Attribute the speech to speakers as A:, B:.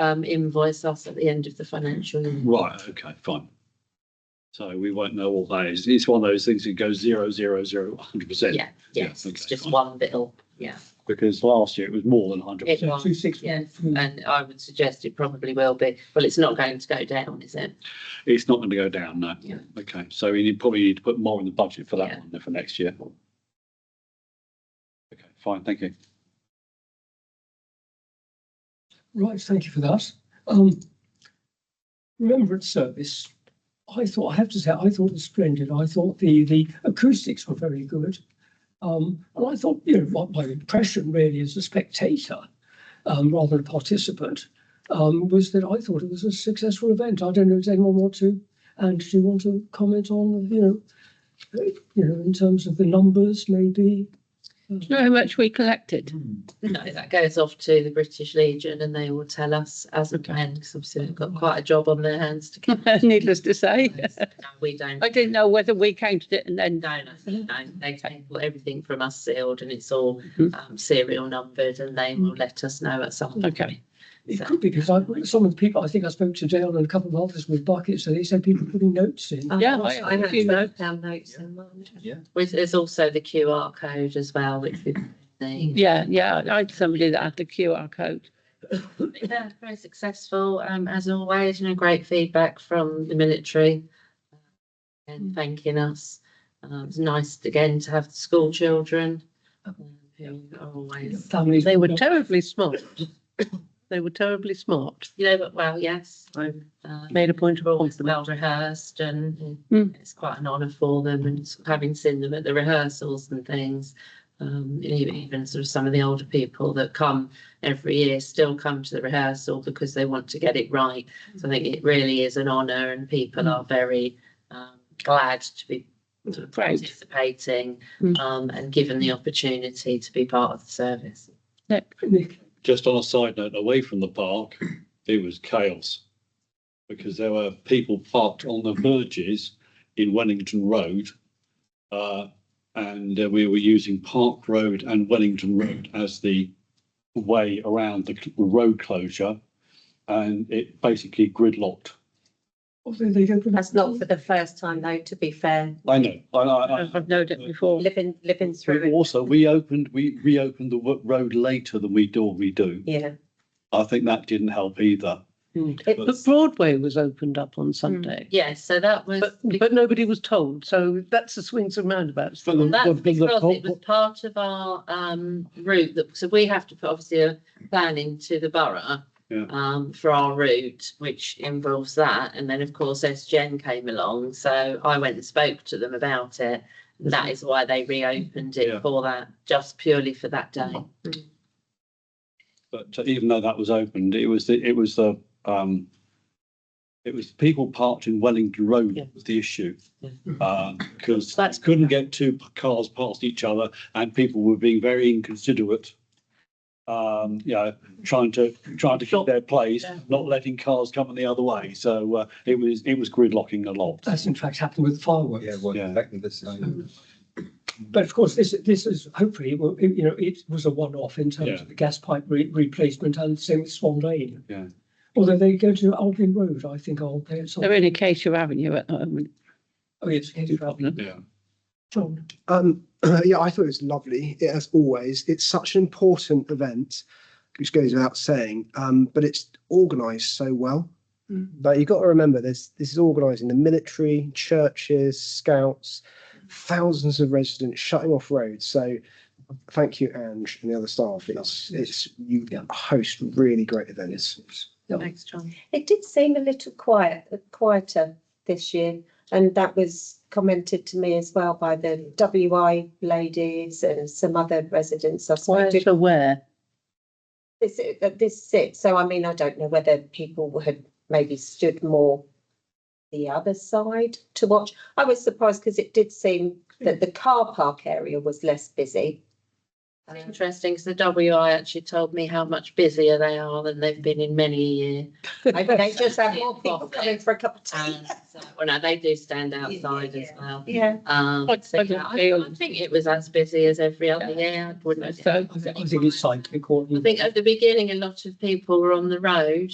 A: um, invoice us at the end of the financial year.
B: Right, okay, fine. So we won't know all those. It's one of those things that goes zero, zero, zero, hundred percent.
A: Yeah, yes,
B: okay,
A: it's just
B: fine.
A: one bill, yeah.
B: Because last year it was more than hundred
A: It
B: percent.
A: was, yeah, and I would suggest it probably will be, well, it's not going to go down, is it?
B: It's not going to go down, no.
A: Yeah.
B: Okay, so we need, probably need to put more in the budget for that
A: Yeah.
B: one for next year. Okay, fine, thank you.
C: Right, thank you for that. Um, remembrance service. I thought, I have to say, I thought it was splendid. I thought the, the acoustics were very good. Um, and I thought, you know, what my impression really as a spectator, um, rather than a participant, um, was that I thought it was a successful event. I don't know, does anyone want to, and do you want to comment on, you know, uh, you know, in terms of the numbers, maybe?
D: know how much we collected?
A: No, that goes off to the British Legion and they will tell us as and
B: Okay.
A: when, because obviously they've got quite a job on their hands to count.
D: Needless to say,
A: No, We don't.
D: I didn't know whether we counted it and then
A: No, no, no, they take everything from us sealed and it's all
D: Mhm.
A: um, serial numbered and they will let us know at some point.
D: Okay.
C: It could be because I, some of the people, I think I spoke to Dale and a couple of others with buckets, and they said people putting notes
A: Oh,
C: in.
D: Yeah, I- I have few notes.
A: Pound notes in mine.
E: Yeah.
A: There's, there's also the QR code as well, which we. need.
D: Yeah, yeah, I had somebody that had the QR code.
A: Yeah, very successful, um, as always, you know, great feedback from the military. um, And thanking us. Uh, it's nice again to have the school children. um, Who are always,
C: Families.
D: They were terribly smart. They were terribly smart.
A: you know, but well, yes.
D: I
A: um,
D: made a point of
A: they're always
D: compliment.
A: well rehearsed and
D: Mm.
A: it's quite an honour for them and sort of having seen them at the rehearsals and things. Um, and even, even sort of some of the older people that come every year still come to the rehearsal because they want to get it right. So I think it really is an honour and people are very um, glad to be sort of
D: Proud.
A: participating
D: Mm.
A: um, and given the opportunity to be part of the service.
C: Nick,
E: Just on a side note, away from the park, it was chaos. Because there were people parked on the verges in Wellington Road. Uh, and uh, we were using Park Road and Wellington Road as the way around the cl- road closure. And it basically gridlocked.
C: oh, they, they opened.
F: That's not for the first time though, to be fair,
E: I know, I, I, I.
D: I've known it before.
F: living, living
E: But
F: through it,
E: Also, we opened, we reopened the wo- road later than we normally do.
F: yeah.
E: I think that didn't help either.
F: It
E: But-
D: But Broadway was opened up on Sunday.
A: Yeah, so that was.
D: But, but nobody was told, so that's the swings and roundabouts.
E: For the-
A: That's
E: for the-
A: because it was part of our um route that, so we have to put obviously a plan into the borough.
E: Yeah.
A: Um, for our route, which involves that, and then of course SGen came along, so I went and spoke to them about it. That is why they reopened
E: Yeah.
A: it for that, just purely for that day.
E: But uh, even though that was opened, it was the, it was the, um, it was people parked in Wellington
D: Yeah.
E: Road was the issue.
D: Yeah.
E: Um, because
A: That's-
E: couldn't get two p- cars past each other and people were being very inconsiderate. Um, you know, trying to, trying to keep their place,
D: Yeah.
E: not letting cars come in the other way. So, uh, it was, it was gridlocking a lot.
C: That's in fact happened with fireworks.
G: Yeah, well,
E: Yeah.
G: exactly the same.
C: But of course, this, this is hopefully, well, it- you know, it was a one-off in terms
E: Yeah.
C: of the gas pipe re- replacement and same with Swan Lane.
E: Yeah.
C: Although they go to Albion Road, I think, aren't they? It's on-
D: They're in Acacia Avenue at the moment.
C: Oh, yes, headed for Albion.
E: Yeah.
C: John,
H: Um, yeah, I thought it was lovely it- as always. It's such an important event, which goes without saying. Um, but it's organised so well. But you've got to remember, there's this is organising the military, churches, scouts, thousands of residents shutting off roads. So thank you, Ange, and the other staff. It's it's you
C: Yeah.
H: host really great events.
A: Thanks, John.
F: It did seem a little quiet, quieter this year, and that was commented to me as well by the WI ladies and some other residents. I
D: Where
F: spoke to
D: to where?
F: this, that this sit, so I mean, I don't know whether people had maybe stood more the other side to watch. I was surprised because it did seem that the car park area was less busy.
A: That's interesting, because the WI actually told me how much busier they are than they've been in many a year.
F: Maybe they just have more people coming for a cup of tea.
A: And so, well, no, they do stand
F: Yeah, yeah,
A: outside as
F: yeah.
A: well.
F: Yeah.
A: Um,
D: I'd
A: so,
D: say
A: yeah, I
D: feel-
A: I think it was as busy as every other year. I wouldn't-
D: So-
C: I think I think it's psychic or.
A: I think at the beginning, a lot of people were on the road